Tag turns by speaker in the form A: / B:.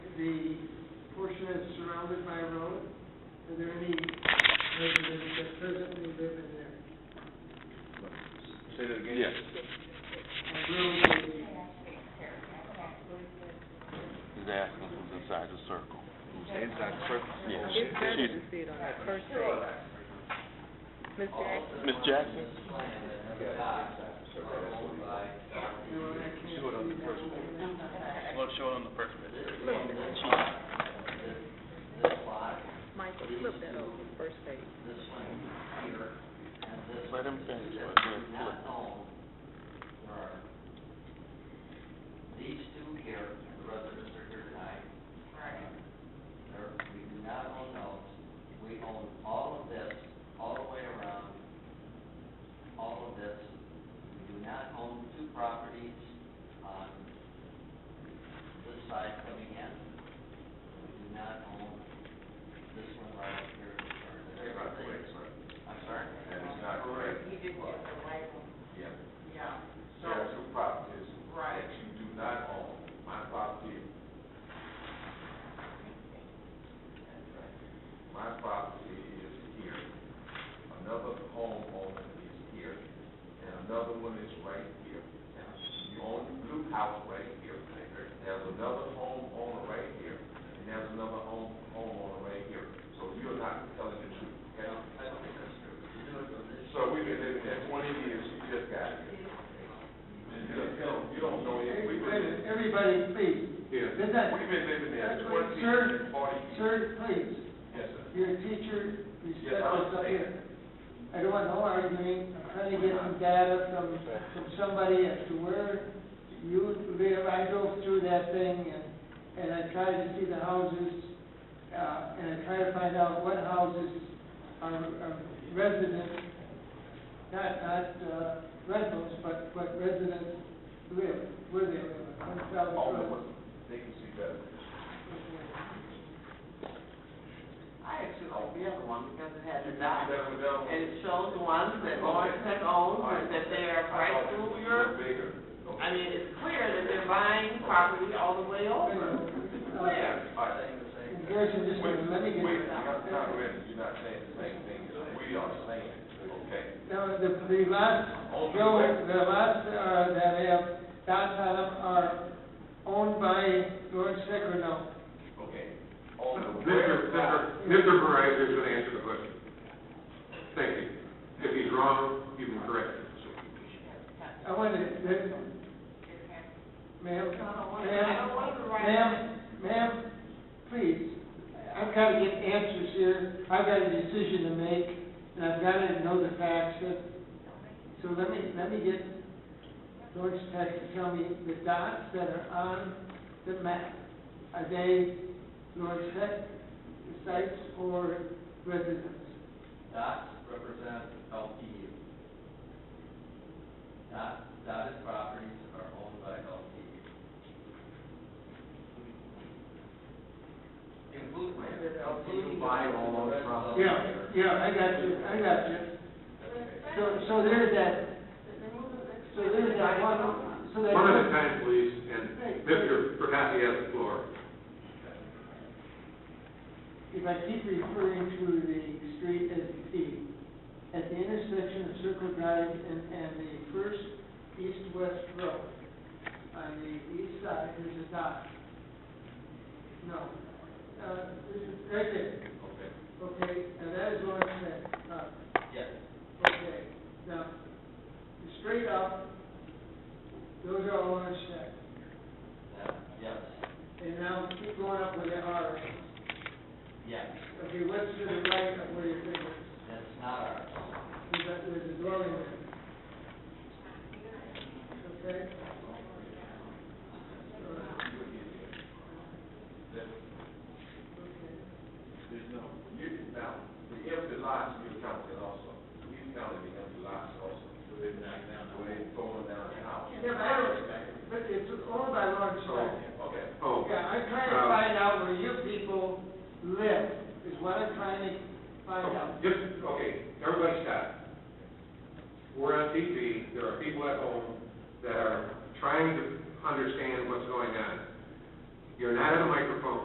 A: bounded by road? Are there any residents that presently live in there?
B: Say that again? Yes.
A: A road would be-
C: He's asking who's inside the circle.
B: Inside the circle?
C: Yeah.
D: It's better
C: She's-
D: to see it on that first page. Ms. Jackson?
C: Ms. Jackson?
B: Show it on the first page. Well, show it on the first page.
D: Michael, flip that over to the first page.
C: Let him finish what we're flipping.
E: These two here, the residents are here tonight. There, we do not own those, we own all of this, all the way around, all of this. We do not own two properties on this side coming in. We do not own this one right here. That's not correct, sir. I'm sorry? That is not correct. He did get the right one. Yeah. Yeah. There are two properties. Right. That you do not own, my property. My property is here, another homeowner is here, and another one is right here. You own the blue house right here, there's another homeowner right here, and there's another home, homeowner right here. So you're not telling the truth, okay? So we've been living there twenty years, you just got here. You don't, you don't- you don't know it, we've been
A: Everybody, everybody, please.
E: here,
A: Did that-
E: we've been living there
A: That's what-
E: twenty,
A: sir,
E: forty years.
A: Sir, please,
E: Yes, sir.
A: you're a teacher, respect
E: Yes, I
A: us up
E: understand.
A: here. I don't want no arguing, I'm trying to get some data from, from somebody as to where you live. I drove through that thing and, and I tried to see the houses, uh, and I tried to find out what houses are, are residents, not, not, uh, rentals, but, but residents live, where they live. on South Road.
E: They can see better.
F: I actually
E: oh,
F: like the other one because it has a
E: Better
F: dot.
E: with them.
F: And it shows the ones that Lawrence had owned, and that they are right through your,
E: Bigger.
F: I mean, it's clear that they're buying property all the way over. It's clear.
E: Are they the same?
A: There's a discussion. Let me get-
E: Wait, you're not, you're not ready, you're not saying the same thing as we are saying, okay?
A: Now, the, the lots, Joe, the lots uh, that have dots on them are owned by George Secorino.
E: Okay. On the
G: Mr.
E: west
G: Senator,
E: side,
G: Mr. Perez is gonna answer the question. Thank you. If he's wrong, you can correct him.
A: I want to, the- ma'am, ma'am, ma'am, ma'am, please. I've got to get answers here. I've got a decision to make, and I've got to know the facts. that- So let me, let me get George Tech to tell me the dots that are on the map. Are they George Tech sites or residents?
E: Dots represent LPU. Dot, dotted properties are owned by LPU. Include, LPU by all property.
A: Yeah, yeah, I got you, I got you. So, so there's that, so there's that one, so that.
G: One at a time, please, and Mr. Perhati has the floor.
A: If I keep referring to the street as E, at the intersection of Circle Drive and, and the first east-west road, on the east side, there's a dot. No, uh, this is, right there,
E: Okay,
A: okay, now that is what I'm saying, uh,
E: yes.
A: Okay, now, straight up, those are all on check.
E: That, yes,
A: And now keep going up where they are.
E: yes,
A: Okay, what's to the right of where your finger is?
E: that's not ours.
A: There's a, there's a dwelling there. Okay?
E: There's no, you, now, the empty lots, you counted also, we counted the empty lots also. So they're not down the way, throwing down the house.
A: Yeah, but I don't, but it's owned by Lawrence
E: So, um,
A: County.
E: okay.
G: Oh,
A: Yeah, I'm trying to find out where you people live, is what I'm trying to find out.
G: oh, just, okay, everybody stop. We're on TV, there are people at home that are trying to understand what's going on. You're not at a microphone.